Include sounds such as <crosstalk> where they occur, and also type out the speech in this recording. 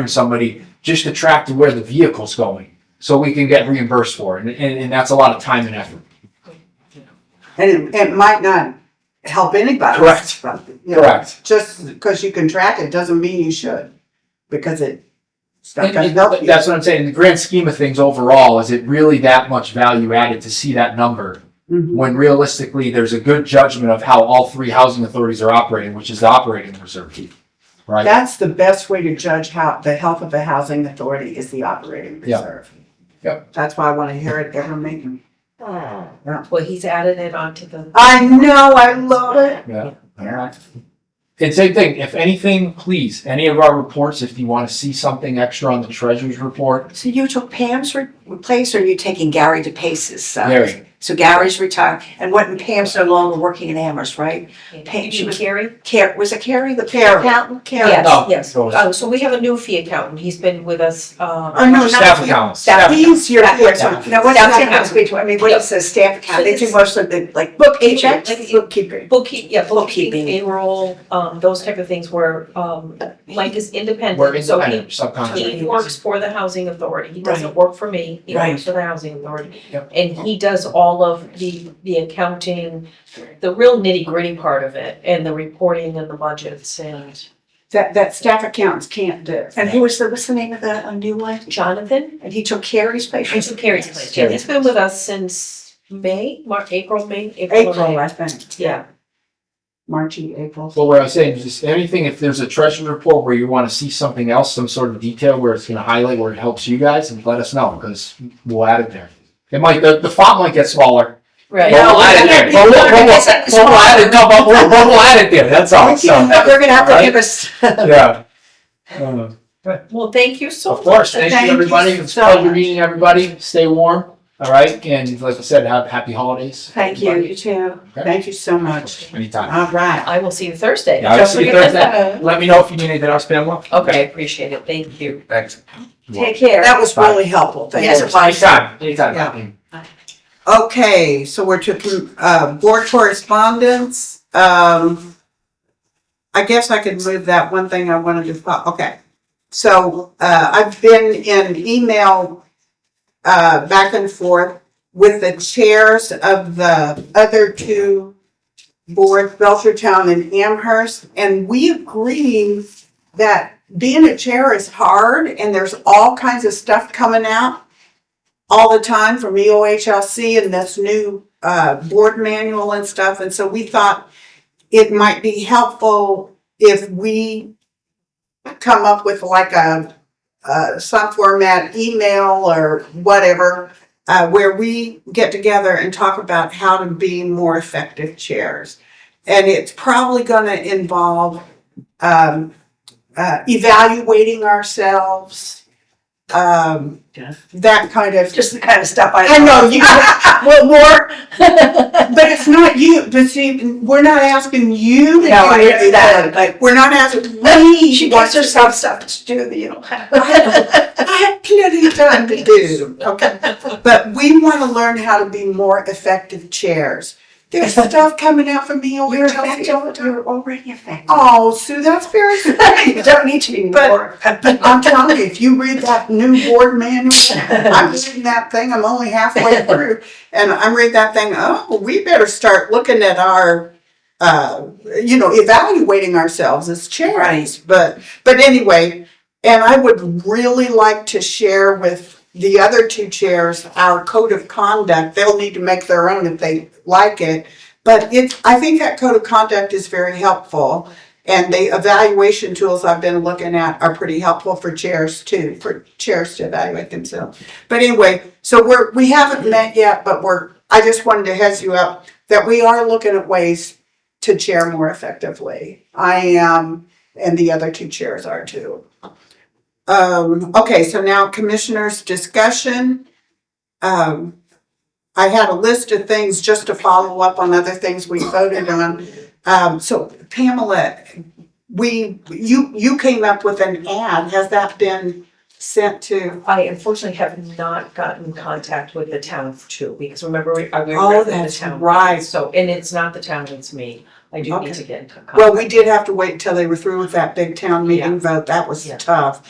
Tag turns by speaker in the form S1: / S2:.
S1: from somebody just to track to where the vehicle's going, so we can get reimbursed for it, and, and, and that's a lot of time and effort.
S2: And it, it might not help anybody.
S1: Correct.
S2: But, you know,
S1: Correct.
S2: Just because you can track it doesn't mean you should, because it, it's not
S1: And-
S2: gonna
S1: and
S2: help you.
S1: That's what I'm saying, in the grand scheme of things overall, is it really that much value added to see that number?
S2: Mhm.
S1: When realistically, there's a good judgment of how all three housing authorities are operating, which is the operating reserve fee, right?
S2: That's the best way to judge how, the health of a housing authority is the operating
S1: Yeah.
S2: reserve.
S1: Yep.
S2: That's why I wanna hear it every meeting.
S3: Well, he's added it onto the.
S2: I know, I love it.
S1: Yeah. And same thing, if anything, please, any of our reports, if you want to see something extra on the treasurer's report,
S4: So you took Pam's re- place, or are you taking Gary DePace's? uh,
S1: Gary.
S4: So Gary's retired, and what, and Pam's no longer working in Amherst, right? Hey, she was-
S3: Gary?
S4: Car, was it Carrie, the
S2: Carrie.
S4: accountant? Carrie?
S1: No,
S3: Yes, yes.
S1: goes-
S3: Oh, so we have a new fee accountant. He's been with us, um.
S2: Oh, no,
S1: staff
S2: not,
S1: accounts.
S4: Staff.
S2: he's your,
S4: Staff-
S2: person.
S4: No,
S2: no,
S4: what
S2: what's
S4: else
S2: that?
S4: can I speak to? I mean, what is the staff account? They do
S3: So
S4: most of the, like,
S3: Bookkeeping,
S4: paychecks,
S3: like-
S4: bookkeeping.
S3: Bookkeep, yeah, bookkeeping,
S4: Bookkeeping.
S3: payroll, um, those type of things where, um, Mike is independent.
S1: We're
S3: so he-
S1: independent, subcontract.
S3: He works for the housing authority, he doesn't
S4: Right.
S3: work for me, he
S4: Right.
S3: works for the housing authority.
S1: Yep.
S3: And he does all of the, the accounting, the real nitty gritty part of it, and the reporting and the budgets and.
S2: That, that staff accountants can't do.
S4: And who was the, what's the name of the uh, new one?
S3: Jonathan,
S4: And he took Carrie's place?
S3: and so Carrie's place, yeah, he's been with us since May, March, April, May, April. or
S2: April,
S3: May.
S2: I think.
S3: Yeah,
S2: March, April.
S1: Well, what I was saying is just anything, if there's a treasury report where you want to see something else, some sort of detail where it's going to highlight where it helps you guys, and let us know because we'll add it there. It might, the, the font might get smaller.
S3: right.
S1: but we'll add it there. But we'll- but we'll- but we'll add it- no, but we'll- but we'll add it there, that's all, so,
S2: <laughs>
S4: We're gonna have to
S1: Right.
S4: give us.
S1: yeah. Uh,
S3: Well, thank you so
S1: Of
S3: much.
S1: course, thank you,
S2: Thank you
S1: everybody. It's a
S2: so
S1: pleasure
S2: much.
S1: meeting everybody. Stay warm, all right? And like I said, have happy holidays.
S2: Thank you, you too.
S1: Okay.
S2: Thank you so much.
S1: Anytime.
S2: All right.
S3: I will see you Thursday.
S1: Yeah, I'll
S3: Don't
S1: see you
S3: forget
S1: Thursday.
S3: that.
S1: Let me know if you need anything else, Pamela.
S3: Okay, I appreciate it, thank you.
S1: Thanks.
S4: Take care.
S2: That was
S1: Bye.
S2: really helpful. Thank
S4: Yes,
S2: you.
S4: it was.
S1: Anytime, anytime.
S2: Okay, so we're to, uh, board correspondence, um. I guess I could move that one thing I wanted to, fo- okay. So, uh, I've been in email, uh, back and forth with the chairs of the other two boards, Belchertown and Amherst, and we agree that being a chair is hard and there's all kinds of stuff coming out all the time from E EOHLC and this new uh, board manual and stuff. And so we thought it might be helpful if we come up with like a, uh, some format email or whatever, uh, where we get together and talk about how to be more effective chairs. And it's probably gonna involve, um, uh, evaluating ourselves, um,
S4: Yeah.
S2: that kind of
S4: Just the kind of stuff I.
S2: I know you. well,
S3: <laughs>
S2: more, but it's not you. But see, we're not asking you to
S4: No, I
S2: do it.
S4: understand, but-
S2: we're not asking. We
S4: She
S2: want
S4: gives herself stuff to do that you don't
S2: I
S4: have.
S2: <laughs> have plenty of time to do. Okay, but we want to learn how to be more effective chairs.
S4: <laughs>
S2: There's stuff coming out from me over
S4: Oh, You're
S2: Chelsea all the
S4: effective,
S2: time.
S4: you're already effective.
S2: Oh, Sue, that's very.
S4: <laughs> You don't need to be
S2: But-
S4: more.
S2: I'm telling you, if you read that new board manual, I'm reading that thing, I'm only halfway through, and I'm reading that thing, oh, we better start looking at our, uh, you know, evaluating ourselves as chairs, but, but anyway, and I would really like to share with the other two chairs our code of conduct, they'll need to make their own if they like it, but it's, I think that code of conduct is very helpful. And the evaluation tools I've been looking at are pretty helpful for chairs too, for chairs to evaluate themselves. But anyway, so we're, we haven't met yet, but we're, I just wanted to heads you up that we are looking at ways to chair more effectively. I am, and the other two chairs are too. Um, okay, so now commissioners discussion. Um, I had a list of things just to follow up on other things we voted on. Um, so Pamela, we, you, you came up with an ad, has that been sent to?
S3: I unfortunately have not gotten in contact with the town for two weeks. Remember, we, I we were
S2: Oh,
S3: in the
S2: that's
S3: town.
S2: right.
S3: So, and it's not the town, it's me. I do
S2: Okay.
S3: need to get in contact.
S2: Well, we did have to wait until they were through with that big town meeting
S3: Yeah.
S2: vote, that was
S3: Yeah.
S2: tough.